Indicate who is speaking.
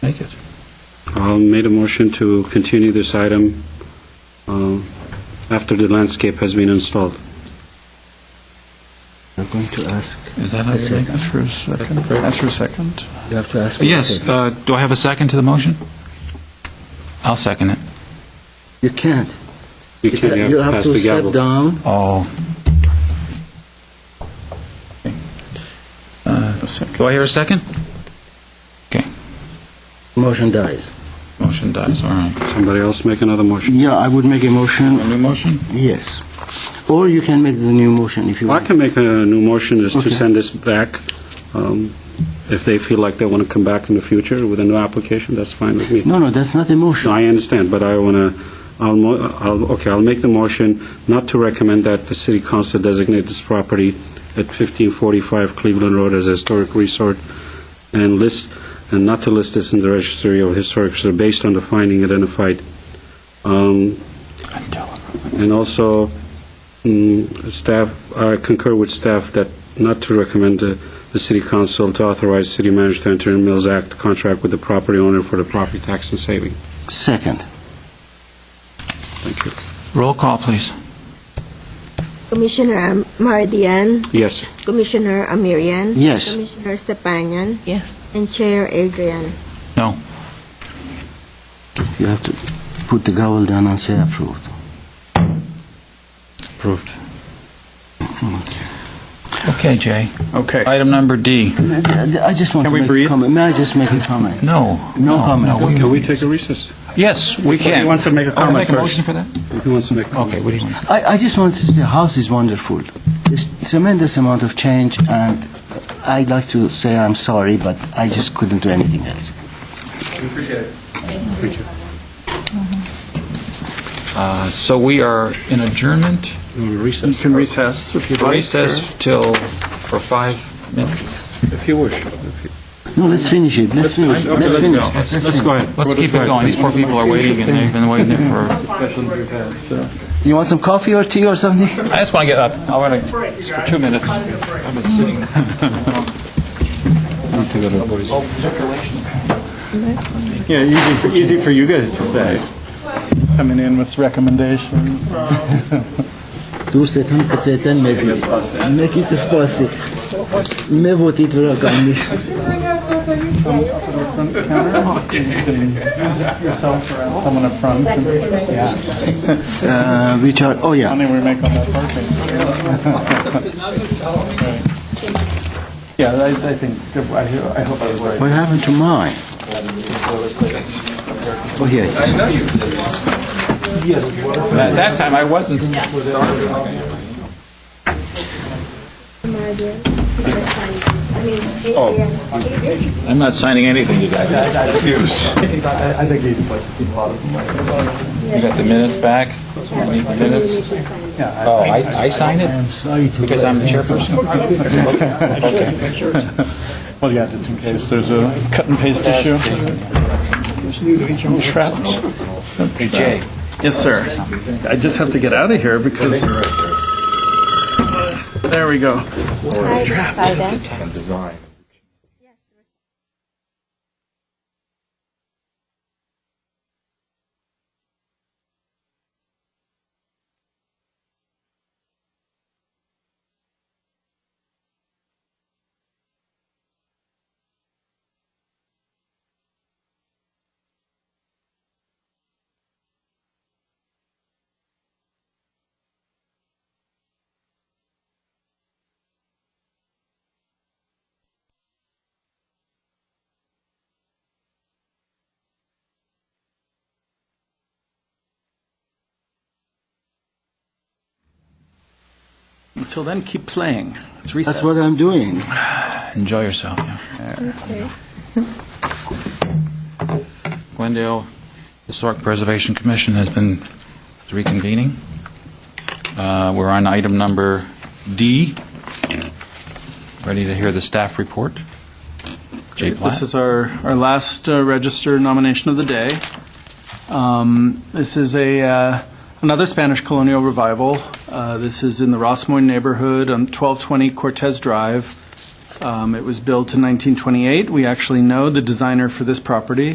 Speaker 1: make it.
Speaker 2: I'll made a motion to continue this item uh, after the landscape has been installed.
Speaker 3: I'm going to ask,
Speaker 1: Is that how
Speaker 3: That's
Speaker 1: you
Speaker 3: it.
Speaker 1: make it? Uh,
Speaker 4: That's for a second. That's for a second.
Speaker 3: you have to ask. for a
Speaker 1: Yes,
Speaker 3: second.
Speaker 1: uh, do I have a second to the motion? I'll second it.
Speaker 3: You can't.
Speaker 2: You can,
Speaker 3: You have
Speaker 2: pass
Speaker 3: to
Speaker 2: the
Speaker 3: step
Speaker 2: gavel.
Speaker 3: down.
Speaker 1: Oh.
Speaker 4: A second.
Speaker 1: Do I hear a second?
Speaker 3: Motion dies.
Speaker 1: Motion dies, all right.
Speaker 2: Somebody else make another motion.
Speaker 3: Yeah, I would make a motion,
Speaker 1: A new motion?
Speaker 3: yes. Or you can make the new motion if you
Speaker 2: I
Speaker 3: want.
Speaker 2: can make a new motion is to
Speaker 3: Okay.
Speaker 2: send this back. um, If they feel like they want to come back in the future with a new application, that's fine with me.
Speaker 3: No, no, that's not a
Speaker 2: No,
Speaker 3: motion.
Speaker 2: I understand, but I want to, I'll, mo- I'll- okay, I'll make the motion not to recommend that the city council designate this property at 1545 Cleveland Road as a historic resort and list, and not to list this in the registry of historic, so based on the finding identified. Um, And also, mm, staff, I concur with staff that not to recommend the the city council to authorize city manager to enter in Mills Act contract with the property owner for the property tax and saving.
Speaker 3: Second.
Speaker 2: Thank you.
Speaker 1: Roll call, please.
Speaker 5: Commissioner Mardian,
Speaker 2: Yes.
Speaker 5: Commissioner Amirian.
Speaker 3: Yes.
Speaker 5: Commissioner Stepanian,
Speaker 6: Yes.
Speaker 5: and Chair Adrian.
Speaker 1: No.
Speaker 3: You have to put the gavel down and say approved.
Speaker 2: Approved.
Speaker 1: Okay, Jay.
Speaker 4: Okay.
Speaker 1: Item number D.
Speaker 3: I just want to
Speaker 4: Can we
Speaker 3: make a
Speaker 4: breathe?
Speaker 3: comment. May I just make a comment?
Speaker 1: No.
Speaker 3: No comment.
Speaker 1: we-
Speaker 2: Can we take a recess?
Speaker 1: Yes, we can.
Speaker 4: He wants to make a
Speaker 1: Oh,
Speaker 4: comment
Speaker 1: Make a
Speaker 4: first.
Speaker 1: motion for that?
Speaker 2: Who wants to make a
Speaker 1: Okay, what do you want?
Speaker 3: I, I just want to say, house is wonderful. There's tremendous amount of change, and I'd like to say I'm sorry, but I just couldn't do anything else.
Speaker 1: Uh, So we are in adjournment,
Speaker 4: You
Speaker 2: recess?
Speaker 4: can recess if you'd like.
Speaker 1: recess till, for five minutes?
Speaker 2: If you wish.
Speaker 3: No, let's finish it. Let's finish. it.
Speaker 1: Okay,
Speaker 3: Let's
Speaker 1: let's
Speaker 3: finish.
Speaker 1: go.
Speaker 3: it.
Speaker 1: Let's-
Speaker 2: Let's
Speaker 3: finish.
Speaker 2: go ahead.
Speaker 1: Let's keep it going, these poor people are waiting, and they've been waiting there for,
Speaker 3: You want some coffee or tea or something?
Speaker 1: I just want to get up, I want to, it's for two minutes. I've been sitting. Oh, circulation.
Speaker 4: Yeah, easy for, easy for you guys to say. Coming in with recommendations.
Speaker 3: دور ستون قطعتن مزید نکی تو سپاسی میبودید را گامیش
Speaker 4: Oh, Yourself or someone up front.
Speaker 3: which are oh yeah
Speaker 4: Money we make on that parking. Yeah, I, I think, I ho- I hope I was right.
Speaker 3: what happened to mine oh here it is.
Speaker 1: At that time, I wasn't.
Speaker 5: Mardian, I mean,
Speaker 1: Oh,
Speaker 5: Adrian. Adrian.
Speaker 1: I'm not signing anything, you guys.
Speaker 4: I think he's like, seen a lot of them.
Speaker 1: You got the minutes back? Need the minutes? Oh, I, I sign it? Because I'm the chairperson?
Speaker 4: Well, yeah, just in case there's a cut and paste issue. Trapped.
Speaker 1: Hey, Jay.
Speaker 4: Yes, sir. I just have to get out of here because. There we go. Until then, keep playing. It's recess.
Speaker 3: that's what I'm doing
Speaker 1: Enjoy yourself, yeah. Glendale Historic Preservation Commission has been reconvening. Uh, We're on item number D. Ready to hear the staff report? Jay Platt?
Speaker 4: This is our, our last uh, registered nomination of the day. Um, This is a, uh, another Spanish colonial revival. Uh, This is in the Rossmoyne neighborhood on 1220 Cortez Drive. Um, It was built in 1928. We actually know the designer for this property.